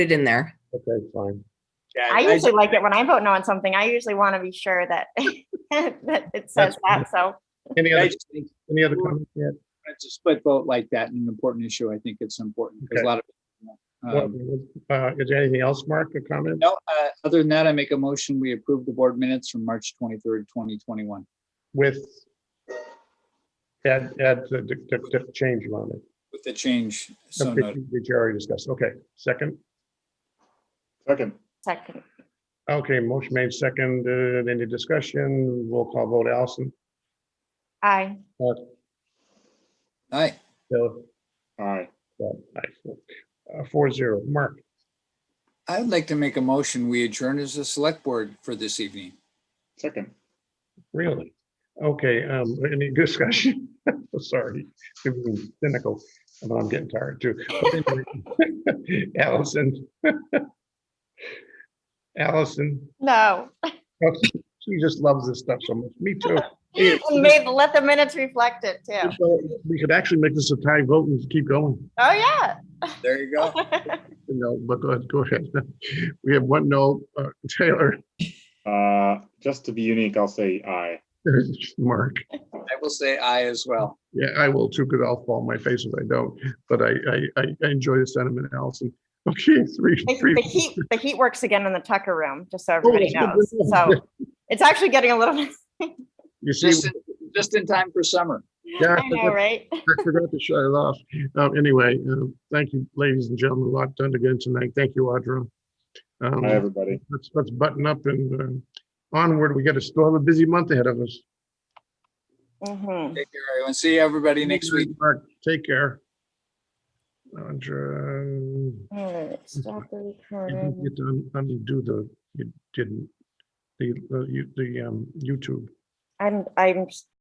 it in there. Okay, fine. Yeah, I usually like it when I vote no on something. I usually want to be sure that, that it says that. So Any I other, just think any other comments yet? It's a split vote like that and an important issue. I think it's important because Okay. a lot of. Um, Uh, Is there anything else, Mark, or comment? No, uh, other than that, I make a motion, we approve the board minutes from March twenty-third, twenty twenty-one. With add, add the, the, the the change on it. With the change, so noted. Which you already discussed. Okay, second. Second. second, Okay, motion made second, uh, any discussion? Roll call vote, Allison. I, Aye. Bill? Aye. Uh, aye. Uh, Four zero. Mark, I'd like to make a motion, we adjourn as a select board for this evening. Second. really? Okay, um, any discussion? Oh, Sorry, I'm being cynical, but I'm getting tired too. But anyway, Allison. Allison, no. oh, she just loves this stuff so much. Me too. Made, let the minutes reflect it too. We could actually make this a tie vote and keep going. Oh, yeah. There you go. No, but go ahead, go ahead. We have one no, uh, Taylor, Uh, just to be unique, I'll say aye. Mark. I will say aye as well. Yeah, I will too, because I'll fall on my face if I don't, but I, I- I, I enjoy the sentiment, Allison. Okay, three, The three. the heat, the heat works again in the Tucker room, just so Oh, everybody knows. it's- So it's actually getting a little, You see, Just, in- just in time for summer. Yeah. I know, right? I forgot to shut it off. Um, anyway, um, thank you, ladies and gentlemen, a lot done again tonight. Thank you, Audra. Um, Hi, everybody. Let's, let's button up and um, onward. We got to still have a busy month ahead of us. Mhm. Take care, everyone. See everybody next week. Mark, Take care. Audra. All right, stop the You recording. didn't get to un- undo the, you didn't, the, uh, you- the um, YouTube. I'm, I'm